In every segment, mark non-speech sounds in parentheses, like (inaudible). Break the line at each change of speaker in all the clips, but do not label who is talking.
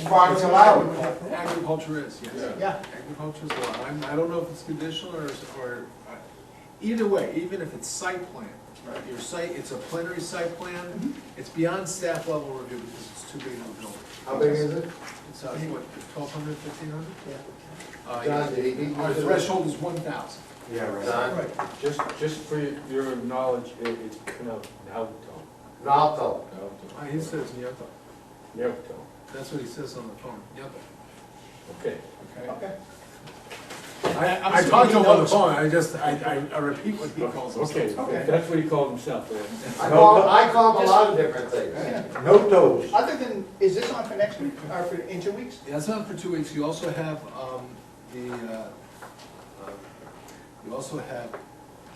farm's allowed.
Agriculture is, yes.
Yeah.
Agriculture is allowed. I'm- I don't know if it's conditional or, or, uh, either way, even if it's site plan.
Right.
Your site, it's a plenary site plan, it's beyond staff level review because it's too big of a building.
How big is it?
It's, uh, what, twelve hundred, fifteen hundred? Uh,
John,
yeah.
did he beat you
Our
to the-
threshold is one thousand.
Yeah, right.
Don,
Just, just for your knowledge, it, it's pronounced Naoto,
Nalto.
Uh, he says Nyeto.
Naoto,
That's what he says on the phone, Nyeto.
okay.
Okay.
Okay.
I, I
I'm
talked to him on
assuming he
the
knows.
phone, I just, I, I, I repeat what he calls himself.
Okay,
Okay.
if that's what he called himself, then.
I call, I call him a lot of different things.
Yeah.
No toes.
Other than, is this on for next week, or for, in two weeks?
That's not for two weeks, you also have, um, the, uh, uh, you also have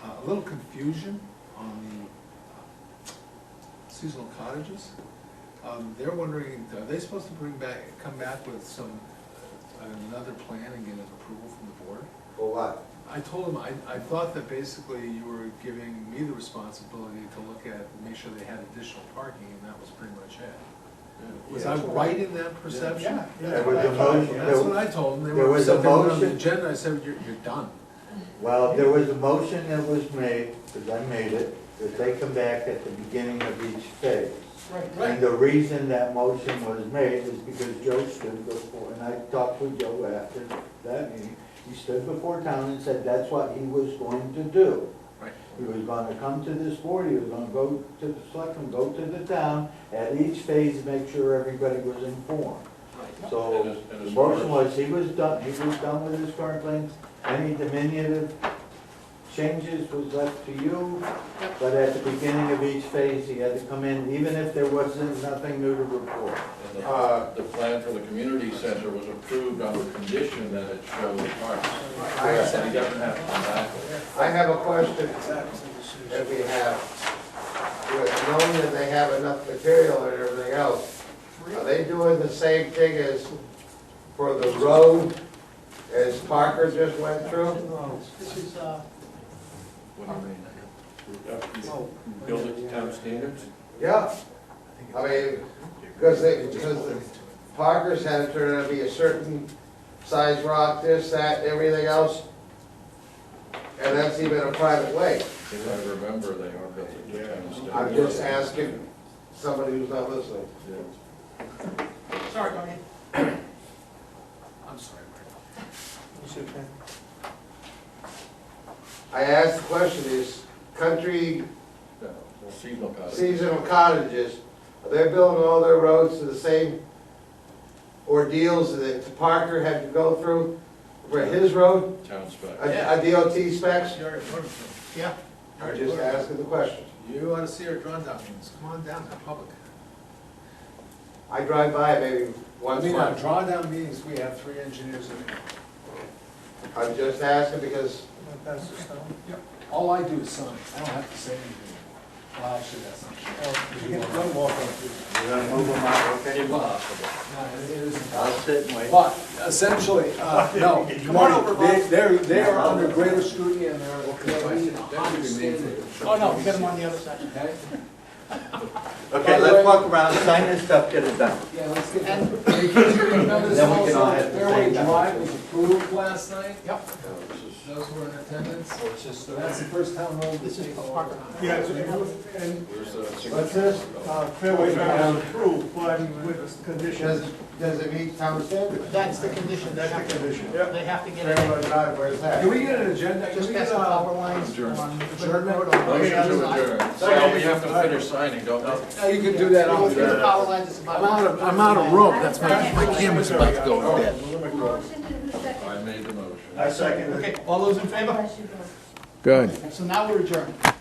uh, a little confusion on the uh, seasonal cottages. Um, they're wondering, are they supposed to bring back, come back with some, uh, another plan and get an approval from the board?
For what?
I told him, I, I thought that basically you were giving me the responsibility to look at, make sure they had additional parking, and that was pretty much it. Was I right in that perception?
Yeah.
There was a motion,
That's what
there-
I told them, they
There
were,
was a
said they were on the
motion.
agenda, I said, you're, you're done.
well, there was a motion that was made, because I made it, that they come back at the beginning of each phase.
Right.
And the reason that motion was made is because Joe stood before, and I talked with Joe after that meeting. He stood before town and said that's what he was going to do.
Right.
He was gonna come to this board, he was gonna go to the selectmen, go to the town, at each phase, make sure everybody was informed. So,
And as- and
the
as far
motion
as-
was, he was done, he was done with his current plans, any diminutive changes was left to you, but at the beginning of each phase, he had to come in, even if there wasn't nothing new to report.
And the-
Uh,
The plan for the community center was approved on the condition that it showed the parks.
I,
And he doesn't have to come back with it.
I have a question that we have. With knowing that they have enough material and everything else, are they doing the same thing as for the road as Parker just went through?
This is, uh,
What do you mean? You Build it to town standards?
Yeah, I mean, because they, because Parker's had to turn out to be a certain size rock, this, that, and everything else. And that's even a private way.
If I remember, they are built it to town standards.
I'm just asking somebody who's not listening.
Yeah.
sorry, Tony.
I'm sorry, Mike.
I asked the question, is country
No, well, Seasonal cottage.
seasonal cottages, are they building all their roads to the same ordeals that Parker had to go through for his road,
Town spec.
a a DOT specs?
You're- you're-
Yeah.
I'm just asking the question.
You ought to see our drawn documents, come on down, they're public.
I drive by maybe
I
once a
mean, our
month.
drawdown meetings, we have three engineers in there.
I'm just asking because
All I do is sign, I don't have to say anything. Well, actually, that's not true. You don't walk on through.
We're gonna move them out, okay?
Impossible.
No, it isn't.
I'll sit and wait.
But essentially,
(laughs)
uh, no,
Come on over,
they, they're, they are under greater scrutiny and they're, they're
That
being
could be made
understanding.
for-
Oh, no, get him on the other side.
Okay?
Okay, let's walk around, sign this stuff, get it done.
Yeah, let's get them. (laughs) Remember this
Then we can all
also,
have the
Fairway
same
Drive was approved last night,
Yep.
those were in attendance. So that's the first town road
This
that's
is
taken
Parker.
over.
Yeah, and
Where's the-
What's this?
uh, Fairway Drive was approved, but with
does,
conditions.
does it meet town standards?
That's the condition. That's the condition. They have to get it,
Railroad Drive, where's that?
Can we get an agenda, can
just
we get
past the
a,
power lines
Adjourn.
on Richmond
Adjourn.
Road. on the
Motion
other
to
side.
adjourn. Well, we have to finish signing, don't we?
now you can do that
Go
on.
through the power lines, it's about.
I'm out of, I'm out of room, that's my, my camera's about to go dead.
Motion to the second.
I made the motion.
second
Okay, all those in favor?
Question.
Good.
So now we're adjourned.